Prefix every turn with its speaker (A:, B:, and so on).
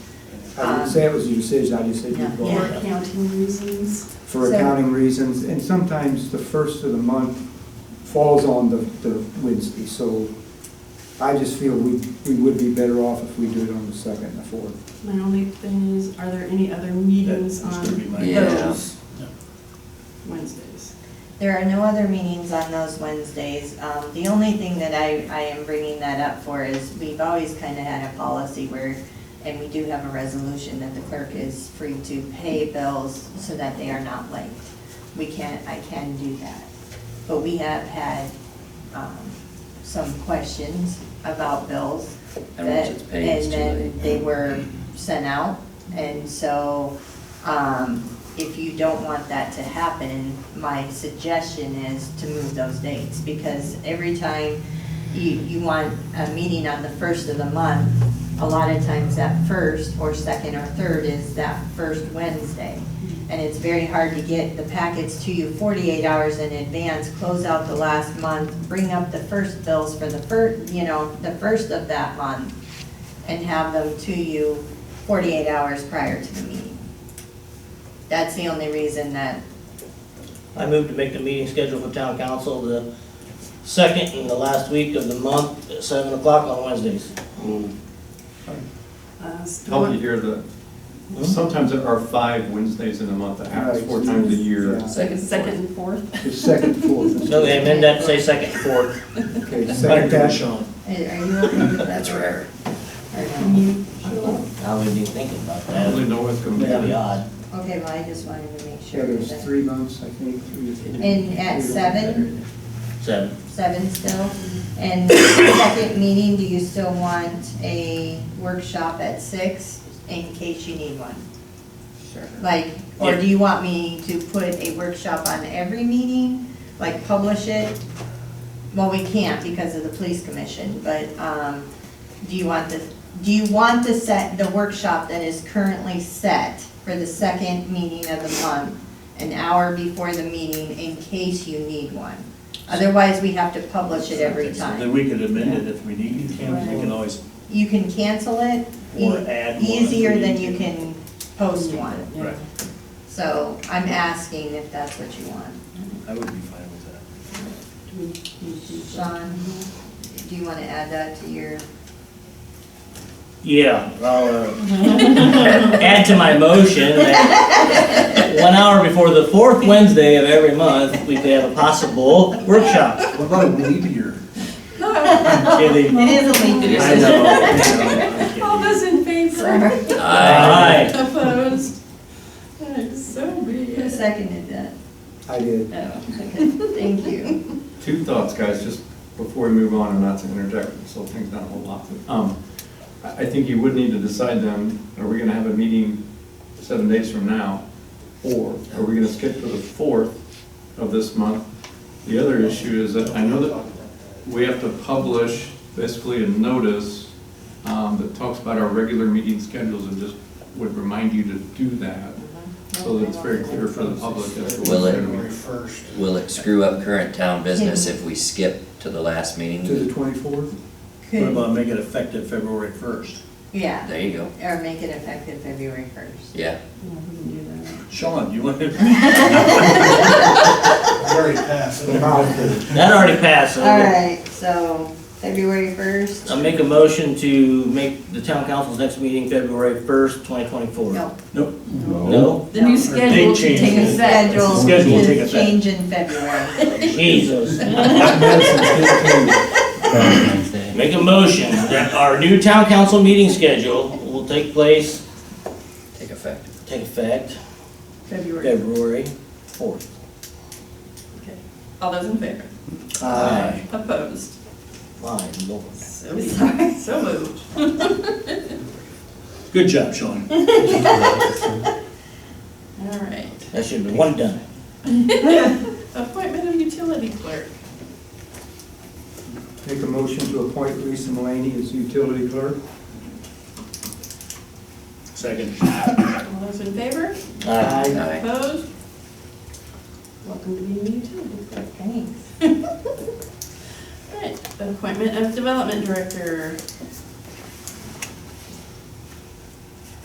A: I
B: Um,
A: didn't say it was a decision, I just said you
B: Yeah,
A: brought
B: For
A: it up.
B: accounting reasons.
A: For
C: So-
A: accounting reasons, and sometimes the first of the month falls on the, the Wednesday, so I just feel we, we would be better off if we do it on the second and the fourth.
B: My only thing is, are there any other meetings
D: That's gonna be
B: on
D: my-
E: Yeah.
B: those Wednesdays?
F: There are no other meetings on those Wednesdays. Um, The only thing that I, I am bringing that up for is we've always kind of had a policy where, and we do have a resolution that the clerk is free to pay bills so that they are not late. We can, I can do that. But we have had um, some questions about bills.
E: And once it's paid, it's too
F: And then
E: late.
F: they were sent out. And so um, if you don't want that to happen, my suggestion is to move those dates. Because every time you, you want a meeting on the first of the month, a lot of times that first or second or third is that first Wednesday. And it's very hard to get the packets to you 48 hours in advance, close out the last month, bring up the first bills for the first, you know, the first of that month, and have them to you 48 hours prior to the meeting. That's the only reason that,
G: I move to make the meeting schedule for town council the second and the last week of the month at seven o'clock on Wednesdays.
B: Uh, so
D: Help you hear the,
G: Hmm?
D: sometimes there are five Wednesdays in a month, that happens four times a year.
A: Yeah.
B: Second, second and fourth.
A: The second, fourth.
G: So they amend that, to say second, fourth.
A: Okay, second that,
F: are you okay with that?
E: rare.
F: Or
B: Can
F: no?
B: you,
G: I wasn't even thinking about
D: I don't really
G: that.
D: know what's going
G: That'd be
D: to
G: odd.
F: Okay, well, I just wanted to make
A: yeah,
F: sure.
A: there's
F: that-
A: three months, I think. three or four.
F: And at seven,
G: Seven.
F: seven still,
A: Mm-hmm.
F: and second meeting, do you still want a workshop at six in case you need one?
E: Sure.
F: Like, or
G: Yeah.
F: do you want me to put a workshop on every meeting, like publish it? Well, we can't because of the police commission, but, um, do you want the, do you want the set, the workshop that is currently set for the second meeting of the month, an hour before the meeting in case you need one? Otherwise, we have to publish it every time.
D: we could amend it if we need to,
F: We can
D: always.
F: You can cancel it e-
D: Or add one if we
F: easier than
D: need
F: you
D: to.
F: can post one.
D: Right,
F: So I'm asking if that's what you want.
D: I would be fine with that.
B: do we need to-
F: Sean, do you want to add that to your?
G: Yeah, I'll, uh, add to my motion that one hour before the fourth Wednesday of every month, we could have a possible workshop.
D: What about meteor?
G: Kidding.
F: It is a
E: It is.
G: I
B: All
G: know.
B: those in favor?
G: Aye.
B: Opposed? Alright, So be
F: Who
B: it.
F: seconded that?
A: I did.
F: Oh, okay. Thank you.
D: Two thoughts, guys, just before we move on, and not to interject, so things not a whole lot. to- Um, I, I think you would need to decide then, are we gonna have a meeting seven days from now? Or are we gonna skip to the fourth of this month? The other issue is that I know that we have to publish basically a notice um, that talks about our regular meeting schedules and just would remind you to do that. So that it's very clear for the public as to what's
E: Will it-
D: going to be.
E: Will it screw up current town business if we skip to the last
A: To
E: meeting?
A: the twenty-fourth?
F: Could,
H: make it effective February first?
F: yeah,
E: There you go.
F: or make it effective February first.
E: Yeah.
B: Yeah, we can do that.
H: Sean, you want to?
I: Very fast.
G: That already passed, so
F: All right, so February first?
G: I make a motion to make the town council's next meeting February first, twenty twenty-four.
F: No.
G: No?
B: The new schedule should
H: change.
B: take
F: Your
B: effect.
F: schedule
H: Schedule will take
F: is
H: effect.
F: change in February.
G: Jesus. Make a motion that our new town council meeting schedule will take place,
E: Take effect.
G: take effect
B: February.
G: February fourth.
B: Okay. All those in favor?
G: Aye.
B: Opposed?
G: My lord.
B: So be it. So moved.
H: Good job, Sean.
B: All right.
G: That should have been one done.
B: Appointment of utility clerk.
A: Make a motion to appoint Lisa Mulaney as utility clerk.
H: Second.
B: All those in favor?
G: Aye.
E: Aye.
B: Opposed? Welcome to being a utility clerk.
F: Thanks.
B: All right, appointment of development director.